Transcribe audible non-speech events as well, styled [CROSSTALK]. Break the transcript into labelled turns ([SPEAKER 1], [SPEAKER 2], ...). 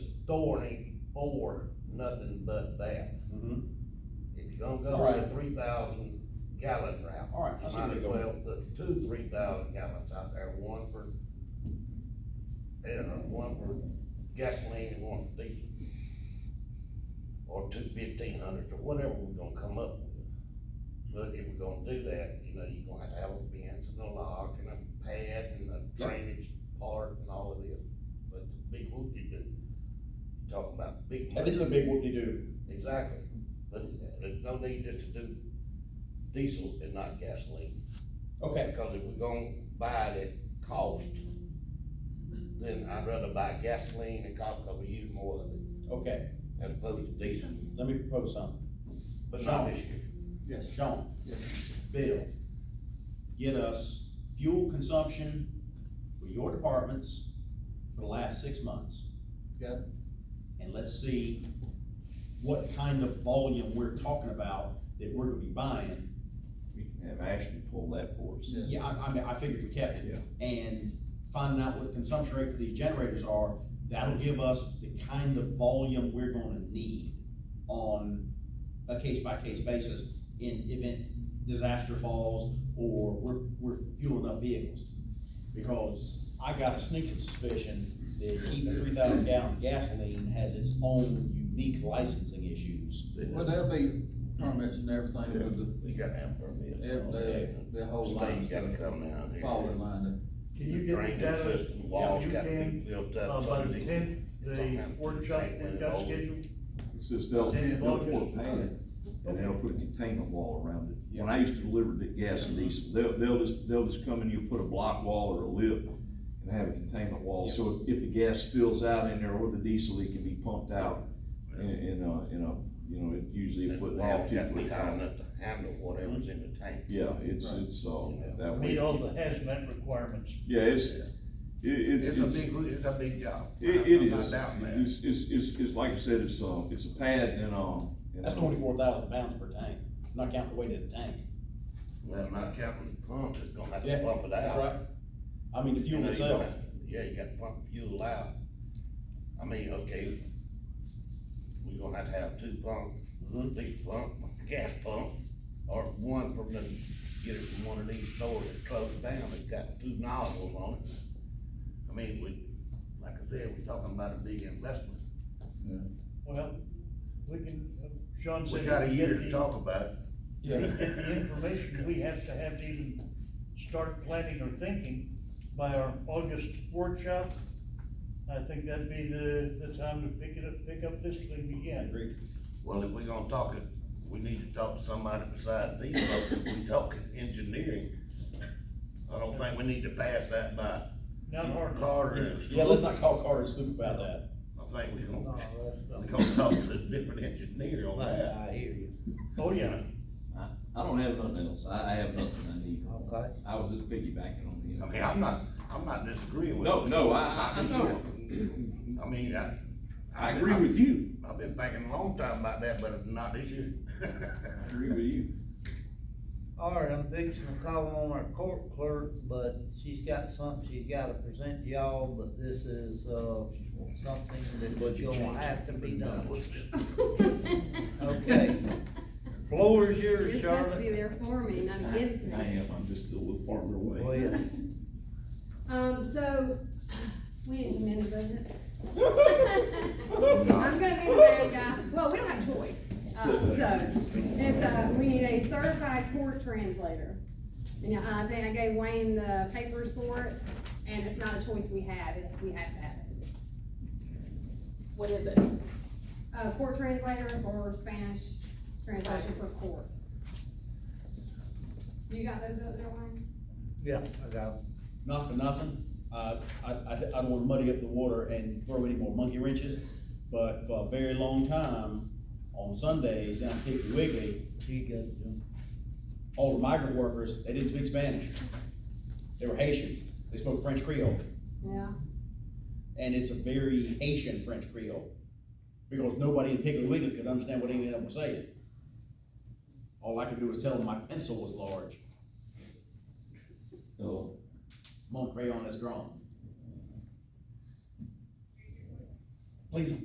[SPEAKER 1] authority for nothing but that.
[SPEAKER 2] Mhm.
[SPEAKER 1] If you're gonna go on the
[SPEAKER 2] Right.
[SPEAKER 1] three thousand gallon route.
[SPEAKER 2] All right, I
[SPEAKER 1] You
[SPEAKER 2] see
[SPEAKER 1] might
[SPEAKER 2] where
[SPEAKER 1] as
[SPEAKER 2] you're going.
[SPEAKER 1] well put two three thousand gallons out there, one for, you know, one for gasoline and one for diesel. Or two fifteen hundreds, or whatever we're gonna come up with. But if we're gonna do that, you know, you're gonna have to have a fence and a lock and a pad and a
[SPEAKER 2] Yeah.
[SPEAKER 1] drainage part and all of this. But the big whoop you do, talking about big
[SPEAKER 2] That
[SPEAKER 1] money.
[SPEAKER 2] is a big whoop-de-doo.
[SPEAKER 1] Exactly, but there's no need just to do diesel and not gasoline,
[SPEAKER 2] Okay,
[SPEAKER 1] because if we're gonna buy it at cost, then I'd rather buy gasoline and cost, cause we use more of it,
[SPEAKER 2] okay,
[SPEAKER 1] as opposed to diesel,
[SPEAKER 2] let me propose something.
[SPEAKER 1] but not this year.
[SPEAKER 3] Yes.
[SPEAKER 2] Sean,
[SPEAKER 3] Yes.
[SPEAKER 2] Bill, get us fuel consumption for your departments for the last six months.
[SPEAKER 3] Got it.
[SPEAKER 2] and let's see what kind of volume we're talking about that we're gonna be buying.
[SPEAKER 4] We can have Ashton pull that for us.
[SPEAKER 3] Yeah.
[SPEAKER 2] Yeah, I, I mean, I figured we kept it. And finding out what the consumption rate for these generators are, that'll give us the kind of volume we're gonna need on a case-by-case basis in event disaster falls or we're, we're fueling up vehicles. Because I got a sneaking suspicion that keeping three thousand gallon gasoline has its own unique licensing issues.
[SPEAKER 3] Well, there'll be permits and everything for the,
[SPEAKER 1] You gotta have permits.
[SPEAKER 3] every, the uh, whole line,
[SPEAKER 1] State's gotta
[SPEAKER 3] stuff,
[SPEAKER 1] come down here.
[SPEAKER 3] fall in line.
[SPEAKER 5] Can you get the
[SPEAKER 1] Drainage
[SPEAKER 5] data?
[SPEAKER 1] system,
[SPEAKER 5] Yeah,
[SPEAKER 1] walls
[SPEAKER 5] you
[SPEAKER 1] gotta be
[SPEAKER 5] can.
[SPEAKER 1] built
[SPEAKER 5] Uh,
[SPEAKER 1] up. so
[SPEAKER 5] by the
[SPEAKER 1] they-
[SPEAKER 5] tenth, the
[SPEAKER 1] sometimes
[SPEAKER 5] workshop
[SPEAKER 1] they
[SPEAKER 5] we've
[SPEAKER 1] went
[SPEAKER 5] got
[SPEAKER 1] over.
[SPEAKER 5] scheduled,
[SPEAKER 4] It's just they'll,
[SPEAKER 5] Ten
[SPEAKER 4] they'll
[SPEAKER 5] bucks.
[SPEAKER 4] pour a pad and they'll put a containment wall around it. When I used to deliver the gas and
[SPEAKER 6] Mm-hmm.
[SPEAKER 4] diesel, they'll, they'll just, they'll just come and you put a block wall or a lip and have a containment wall. So if if the gas spills out in there or the diesel, it can be pumped out in, in a, in a, you know, it usually a
[SPEAKER 1] The
[SPEAKER 4] foot and a half,
[SPEAKER 1] walls
[SPEAKER 4] two
[SPEAKER 1] gotta be
[SPEAKER 4] foot
[SPEAKER 1] high
[SPEAKER 4] high.
[SPEAKER 1] enough to handle whatever's in the tank.
[SPEAKER 4] Yeah, it's, it's, uh, that way.
[SPEAKER 5] meet all the hazmat requirements.
[SPEAKER 4] Yeah, it's, it, it's.
[SPEAKER 6] It's a big, it's a big job.
[SPEAKER 4] It, it
[SPEAKER 6] I'm not
[SPEAKER 4] is,
[SPEAKER 6] doubting that.
[SPEAKER 4] it's, it's, it's, it's like I said, it's, uh, it's a pad and, um. and,
[SPEAKER 2] That's
[SPEAKER 4] uh,
[SPEAKER 2] twenty-four thousand pounds per tank, not counting the weight of the tank.
[SPEAKER 1] Well, not counting the pump, it's gonna have to
[SPEAKER 2] Yeah,
[SPEAKER 1] pump it out.
[SPEAKER 2] That's right. I mean, the
[SPEAKER 1] You
[SPEAKER 2] fuel
[SPEAKER 1] know, you
[SPEAKER 2] itself.
[SPEAKER 1] gotta- Yeah, you gotta pump fuel out. I mean, okay, we are gonna have to have two pumps,
[SPEAKER 2] Mhm.
[SPEAKER 1] these pump, gas pump, or one from the, get it from one of these stores that closed down, that's got two nozzles on it. I mean, we, like I said, we're talking about a big investment.
[SPEAKER 5] Well, we can, uh, Sean
[SPEAKER 6] We
[SPEAKER 5] said.
[SPEAKER 6] got a
[SPEAKER 5] we
[SPEAKER 6] year
[SPEAKER 5] get
[SPEAKER 6] to
[SPEAKER 5] the-
[SPEAKER 6] talk about it.
[SPEAKER 1] [LAUGHS]
[SPEAKER 5] we Get the information we have to have to even start planning or thinking by our August workshop. I think that'd be the, the time to pick it up, pick up this thing again.
[SPEAKER 2] Agreed.
[SPEAKER 1] Well, if we are gonna talk it, we need to talk to somebody besides these folks, if we talking engineering. I don't think we need to pass that by
[SPEAKER 5] Not hard.
[SPEAKER 1] Carter and
[SPEAKER 2] Yeah, let's not call Carter and Snoop about that.
[SPEAKER 1] I think we
[SPEAKER 5] No,
[SPEAKER 1] gonna,
[SPEAKER 5] that's not-
[SPEAKER 1] we gonna talk to a different engineer on that.
[SPEAKER 6] hear you.
[SPEAKER 5] Oh, yeah.
[SPEAKER 7] I, I don't have nothing else, I, I have nothing I need,
[SPEAKER 6] Okay.
[SPEAKER 7] I was just piggybacking on
[SPEAKER 1] I
[SPEAKER 7] him.
[SPEAKER 1] mean, I'm not, I'm not disagreeing with.
[SPEAKER 7] No,
[SPEAKER 1] you.
[SPEAKER 7] no, I, I, I know,
[SPEAKER 1] I mean, I.
[SPEAKER 7] I agree with you,
[SPEAKER 1] I've been thinking a long time about that, but not this year.
[SPEAKER 7] I
[SPEAKER 1] [LAUGHS]
[SPEAKER 7] agree with you.
[SPEAKER 8] All right, I'm fixing to call on our court clerk, but she's got something she's gotta present to y'all, but this is, uh, something that you'll have to be done. Okay. Floor is
[SPEAKER 9] You're
[SPEAKER 8] yours,
[SPEAKER 9] supposed to be
[SPEAKER 8] Charlotte.
[SPEAKER 9] there for me, not against
[SPEAKER 4] I
[SPEAKER 9] me.
[SPEAKER 4] am, I'm just a little farther away.
[SPEAKER 8] Go ahead.
[SPEAKER 9] Um, so, [CLEARS THROAT] we didn't amend the budget. I'm gonna be the bad guy, uh, well, we don't have a choice, um, so, it's, uh, we need a certified court translator. And uh, I think I gave Wayne the papers for it, and it's not a choice we have, it- we have to have it.
[SPEAKER 10] What is it?
[SPEAKER 9] Uh, court translator or Spanish translation for court. You got those up there, Wayne?
[SPEAKER 8] Yeah, I got it.
[SPEAKER 2] Not for nothing, uh, I, I, I don't wanna muddy up the water and throw any more monkey wrenches, but for a very long time, on Sundays down at Piggly Wiggly,
[SPEAKER 8] You got it, Jim.
[SPEAKER 2] all the migrant workers, they didn't speak Spanish. They were Haitians, they spoke French Creole.
[SPEAKER 9] Yeah,
[SPEAKER 2] and it's a very Haitian French Creole because nobody in Piggly Wiggly could understand what any of them were saying. All I could do was tell them my pencil was large. So, mon crayon is drawn. Please